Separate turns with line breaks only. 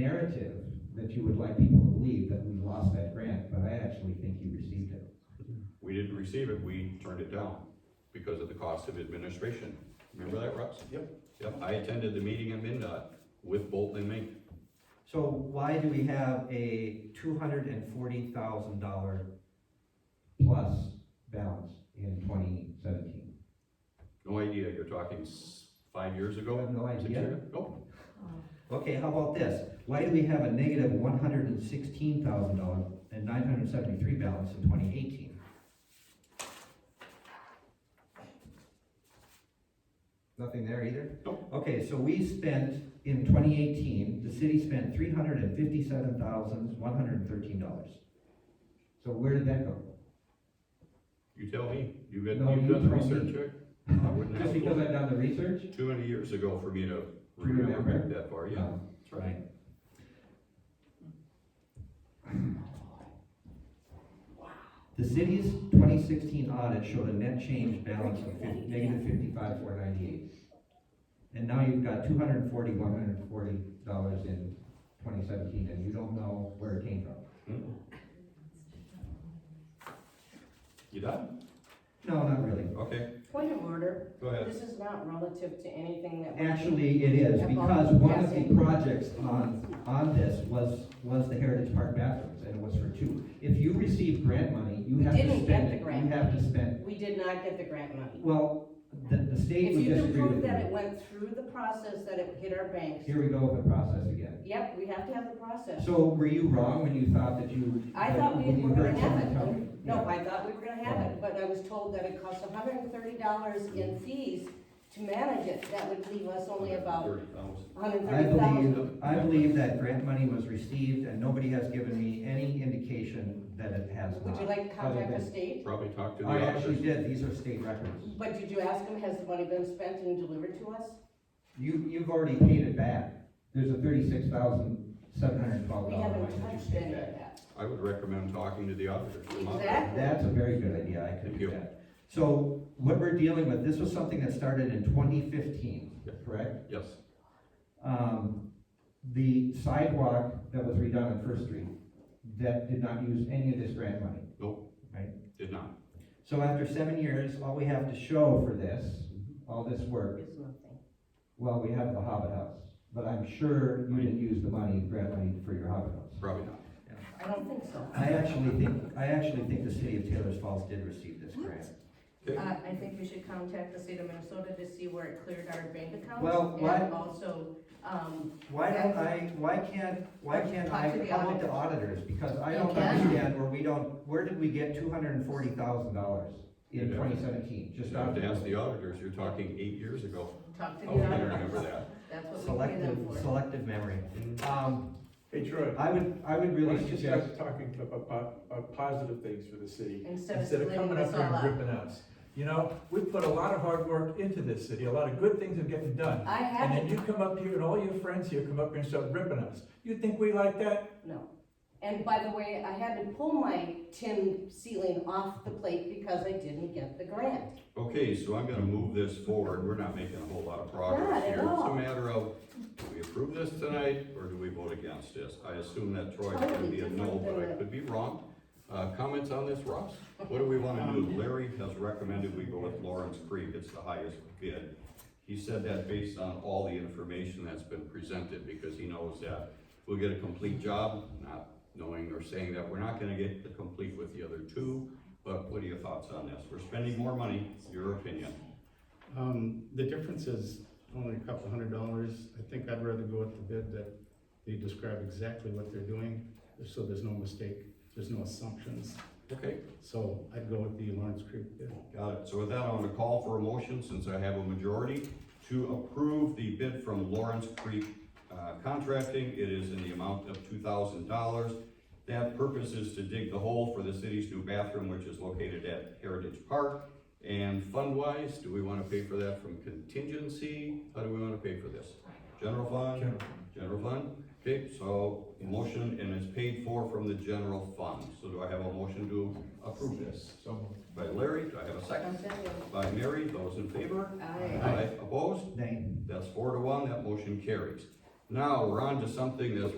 narrative that you would like people to believe that we lost that grant, but I actually think you received it.
We didn't receive it, we turned it down because of the cost of administration. Remember that, Russ? Yep. Yep, I attended the meeting at MinDOT with Bolton and Mink.
So why do we have a two hundred and forty thousand dollar,
Plus balance in twenty seventeen.
No idea, you're talking s- five years ago?
I have no
Six
idea.
years ago?
okay, how about this? Why do we have a negative one hundred and sixteen thousand dollar and nine hundred and seventy-three balance in twenty eighteen? Nothing there either?
Nope.
Okay, so we spent, in twenty eighteen, the city spent three hundred and fifty-seven thousand, one hundred and thirteen dollars.
So where did that go?
You tell me, you've been,
No,
you've
you
done the
tell me.
research, Rick? I wouldn't
Just
have
because
a
I've done the research?
clue. Too many years ago for me to
remember?
remember back that far, yeah.
No.
That's right.
The city's twenty sixteen audit showed a net change balance of fif- negative
fifty-five, four ninety-eight. And now you've got two hundred and forty, one hundred and forty dollars in twenty seventeen, and you don't know where it came from.
You done?
No, not really.
Okay,
Point of order,
go ahead.
this is not relative to anything that. we-
Actually, it is, because one of the projects on, on this was, was the Heritage Park bathrooms, and it was for two.
If you receive grant money, you have to
Didn't
spend
get
it,
the grant.
you have to spend,
We did not get the grant money.
well, the, the state
If
would
you can
disagree
prove
with
that it
you.
went through the process, that it hit our banks,
Here we go with the process again.
yep, we have to have the process.
So were you wrong when you thought that you?
I thought we
when you
were
heard
gonna have
someone tell you?
it. No,
Yeah.
I thought we were gonna have it, but I was told that it costs hundred and thirty dollars in fees to manage it. That would leave us only about
Thirty thousand.
hundred and
I
thirty thousand.
believe, I believe that grant money was received, and nobody has given me any indication that it has
Would you
not.
like to contact the state?
Probably talked to the
I
officers.
actually did, these are state records.
But did you ask them, has the money been spent and delivered to us?
You, you've already paid it back. There's a thirty-six thousand, seven hundred and twelve
We
dollar
haven't
line that
touched
you paid
any of
back.
that.
I would recommend talking to the auditors.
Exactly.
That's a very good idea, I could
Thank
do
you.
that. So what we're dealing with, this was something that started in twenty fifteen,
Yeah.
correct?
Yes,
um, the sidewalk that was redone on First Street, that did not use any of this grant money.
did not.
So after seven years, all we have to show for this,
Mm-hmm.
all this work,
It's nothing.
Well, we have the Hobbit House, but I'm sure you didn't use the money, grant money for your Hobbit House.
Probably not.
I don't think so.
I actually think, I actually think the city of Taylor's Falls did receive this grant.
Okay.
Uh, I think we should contact the state of Minnesota to see where it cleared our bank accounts.
Well, why-
And also, um,
Why don't I, why can't, why can't I,
Talk to the
how about the auditors, because I
You
don't
can.
understand where we don't, where did we get two hundred and forty thousand dollars in
You'd have-
twenty seventeen, just
Just
out
have to ask
of.
the auditors, you're talking eight years ago.
talk to the
Oh, I remember
auditors.
that.
That's what we pay
Selective,
them for.
selective memory. Um,
Hey Troy,
I would, I would
why
really
don't you
suggest,
start talking to- about, about positive things for the city?
Instead of
Instead of
splitting
coming up
us
here
all
and
up.
ripping us. You know, we put a lot of hard work into this city, a lot of good things are getting done.
I
And then
haven't,
you come up here and all your friends here come up here and start ripping us. You think we like that?
no. And by the way, I had to pull my tin ceiling off the plate because I didn't get the grant.
Okay, so I'm gonna move this forward, we're not making a whole lot of
Not
progress
at
here. It's a
all.
matter of, do we approve this tonight, or do we vote against this? I assume that Troy's gonna
Totally
be a no,
different
but I
than-
could be wrong. Uh, comments on this, Ross? What do we wanna do? Larry has recommended we go with Lawrence Creek, it's the highest bid. He said that based on all the information that's been presented, because he knows that we'll get a complete job, not knowing or saying that we're not gonna get the complete with the other two, but what are your thoughts on this? We're spending more money, your opinion.
Um, the difference is only a couple hundred dollars. I think I'd rather go with the bid that they describe exactly what they're doing, so there's no mistake, there's no assumptions.
Okay,
So I'd go with the Lawrence Creek bid.
got it. So with that, I'm gonna call for a motion, since I have a majority, to approve the bid from Lawrence Creek uh, Contracting. It is in the amount of two thousand dollars. That purpose is to dig the hole for the city's new bathroom, which is located at Heritage Park. And fund-wise, do we wanna pay for that from contingency? How do we wanna pay for this? General fund?
General.
General fund? Okay, so motion, and it's paid for from the general fund. So do I have a motion to approve this?
So,
By Larry, do I have a second? By Mary, those in favor?
Aye.
Opposed?
Dane.
That's four to one, that motion carries. Now, we're on to something that's